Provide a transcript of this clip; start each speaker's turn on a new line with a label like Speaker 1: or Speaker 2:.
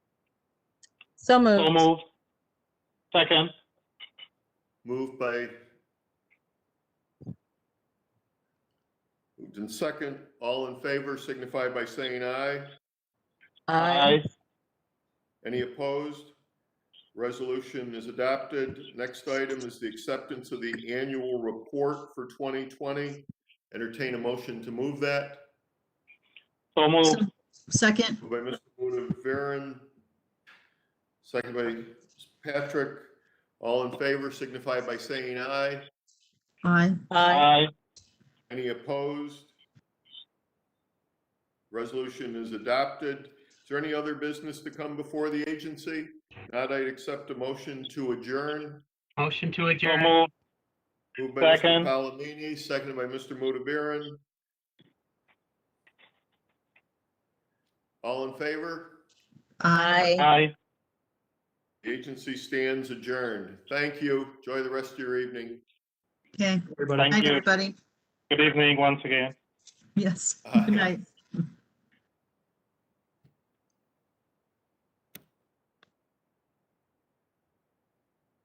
Speaker 1: So
Speaker 2: So
Speaker 1: moved.
Speaker 2: moved. Second.
Speaker 3: Moved by. Moved in second. All in favor signify by saying aye.
Speaker 1: Aye.
Speaker 3: Any opposed? Resolution is adopted. Next item is the acceptance of the annual report for 2020. Entertain a motion to move that.
Speaker 2: So moved.
Speaker 4: Second,
Speaker 3: Moved by Mr. Mudavaren, second by Ms. Patrick. All in favor signify by saying aye.
Speaker 4: aye.
Speaker 1: Aye.
Speaker 2: Aye.
Speaker 3: Any opposed? Resolution is adopted. Is there any other business to come before the agency? Not, I'd accept a motion to adjourn.
Speaker 5: Motion to
Speaker 2: So
Speaker 5: adjourn.
Speaker 2: moved.
Speaker 3: Moved by Mr.
Speaker 2: Second.
Speaker 3: Palomini, seconded by Mr. Mudavaren. All in favor?
Speaker 1: Aye.
Speaker 2: Aye.
Speaker 3: The agency stands adjourned. Thank you. Enjoy the rest of your evening.
Speaker 4: Okay,
Speaker 2: Thank
Speaker 4: night,
Speaker 2: you.
Speaker 4: everybody.
Speaker 2: Good evening once again.
Speaker 4: Yes,
Speaker 3: Aye.
Speaker 4: good night.